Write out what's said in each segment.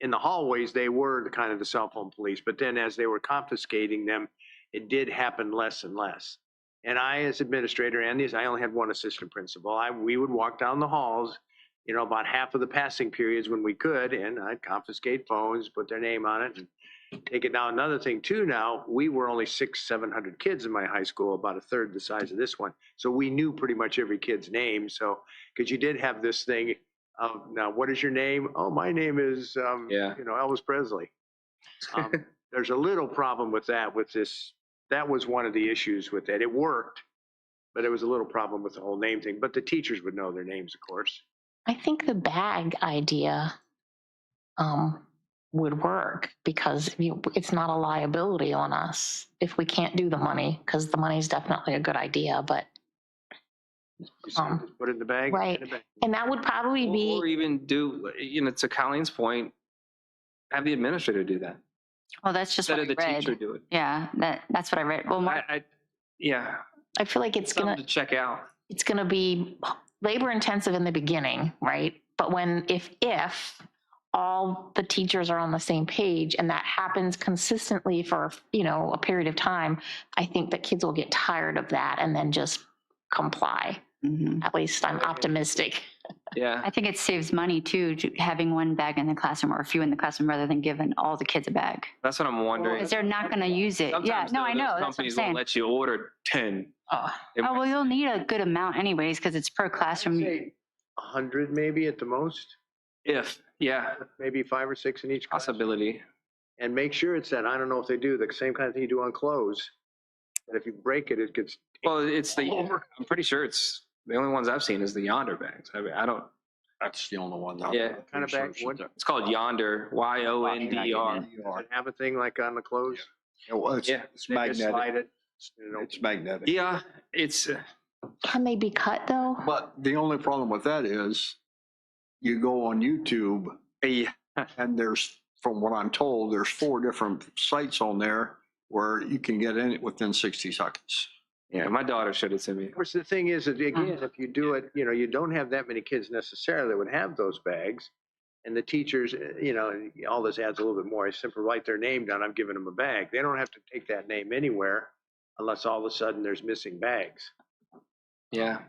in the hallways, they were the kind of the cell phone police, but then as they were confiscating them, it did happen less and less. And I, as administrator, and these, I only had one assistant principal, I, we would walk down the halls, you know, about half of the passing periods when we could, and I'd confiscate phones, put their name on it, and Take it now, another thing too now, we were only six, seven hundred kids in my high school, about a third the size of this one. So we knew pretty much every kid's name, so, because you did have this thing of, now, what is your name? Oh, my name is, um, Yeah. you know, Elvis Presley. Um, There's a little problem with that, with this, that was one of the issues with that. It worked, but it was a little problem with the whole name thing, but the teachers would know their names, of course. I think the bag idea um, would work because you- it's not a liability on us if we can't do the money, because the money's definitely a good idea, but, You said, Um, just Put it in the bag. put it in the bag. and that would probably Or be, even do, you know, to Colleen's point, have the administrator do that Well, that's just instead what of the I teacher read. do it. Yeah, that, that's what I read. Well, I, Mark, I, yeah, I feel like it's something gonna, to check out. it's gonna be labor intensive in the beginning, right? But when, if, if all the teachers are on the same page and that happens consistently for, you know, a period of time, I think that kids will get tired of that and then just comply. mhm. At least I'm optimistic. Yeah. I think it saves money too, to- having one bag in the classroom or a few in the classroom rather than giving all the kids a bag. That's what I'm wondering. Because they're not going to use it. Yeah, Sometimes no, though, I those know. That's what I'm Companies will saying. let you order 10. Oh, They Oh, might well, you'll need a good amount anyways, because it's per classroom. Say A hundred maybe at the most, If, yeah, maybe five or six in each class. possibility. and make sure it's that, I don't know if they do, the same kind of thing you do on clothes. But if you break it, it gets Well, it's the, over. I'm pretty sure it's, the only ones I've seen is the Yonder bags. I mean, I don't, That's the only one. that- Yeah. Kinda Pretty sure back she wood. does. it's called Yonder, Y O N D E R. You are. and have a thing like on the clothes. E Yeah, well, it's- Yeah. It's They just magnetic. slide it. you know. It's magnetic. Yeah, it's, uh, can they be cut though? But the only problem with that is you go on YouTube a- and there's, from what I'm told, there's four different sites on there where you can get in it within 60 seconds. yeah, my daughter showed it to me. Of course, the thing is, that again, if you do it, you know, you don't have that many kids necessarily that would have those bags. And the teachers, eh, you know, all this adds a little bit more. I simply write their name down, I'm giving them a bag. They don't have to take that name anywhere unless all of a sudden there's missing bags. Yeah.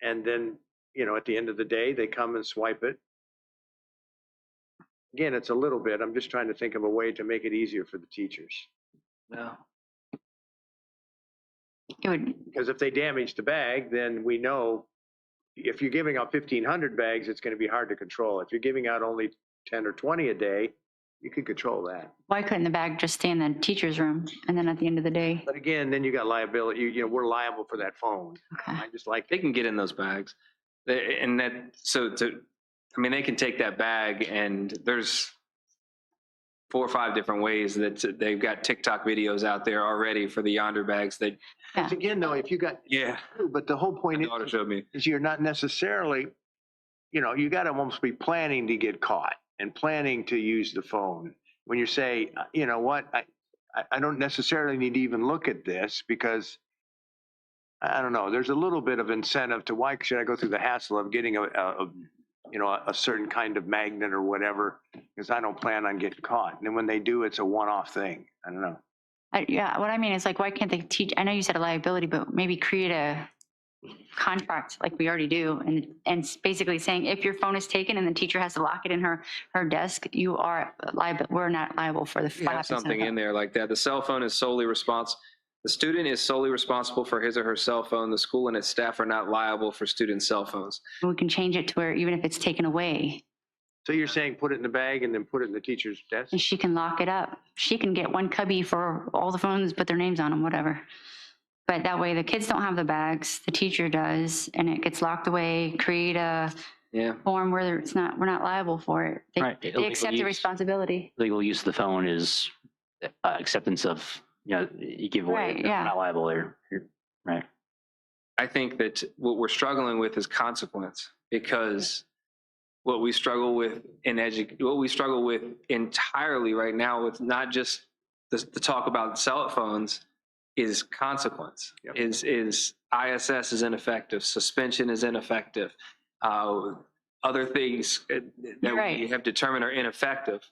And then, you know, at the end of the day, they come and swipe it. Again, it's a little bit, I'm just trying to think of a way to make it easier for the teachers. No. It would, Because if they damage the bag, then we know if you're giving out fifteen hundred bags, it's gonna be hard to control. If you're giving out only ten or twenty a day, you can control that. why couldn't the bag just stay in the teacher's room? And then at the end of the day, But again, then you got liability, you, you know, we're liable for that phone. okay. I just like, They can get in those bags. They- And that, so to, I mean, they can take that bag and there's four or five different ways that they've got TikTok videos out there already for the Yonder bags that, It's again, though, if you got, yeah, but the whole point my is. daughter showed me. is you're not necessarily, you know, you got to almost be planning to get caught and planning to use the phone. When you say, uh, you know what, I, I, I don't necessarily need to even look at this because I I don't know, there's a little bit of incentive to why should I go through the hassle of getting a, a, a- you know, a, a certain kind of magnet or whatever, because I don't plan on getting caught. And then when they do, it's a one-off thing. I don't know. I- Yeah, what I mean is like, why can't they teach, I know you said a liability, but maybe create a contract like we already do and, and s- basically saying if your phone is taken and the teacher has to lock it in her, her desk, you are liable, we're not liable for the have five percent. something in there like that. The cell phone is solely responsible. The student is solely responsible for his or her cell phone. The school and its staff are not liable for student cell phones. We can change it to where even if it's taken away, So you're saying put it in the bag and then put it in the teacher's desk? and she can lock it up. She can get one cubby for all the phones, put their names on them, whatever. But that way the kids don't have the bags, the teacher does, and it gets locked away, create a Yeah. form where it's not, we're not liable for it. They- Right. They accept the illegal use- responsibility. Legal use of the phone is uh, acceptance of, you know, you give away, Right, you're yeah. not liable or, you're- right? I think that what we're struggling with is consequence because what we struggle with in edu- what we struggle with entirely right now with not just the, the talk about cell phones is consequence Yep. is is ISS is ineffective suspension is ineffective uh, other things uh, that You're right. we have determined are ineffective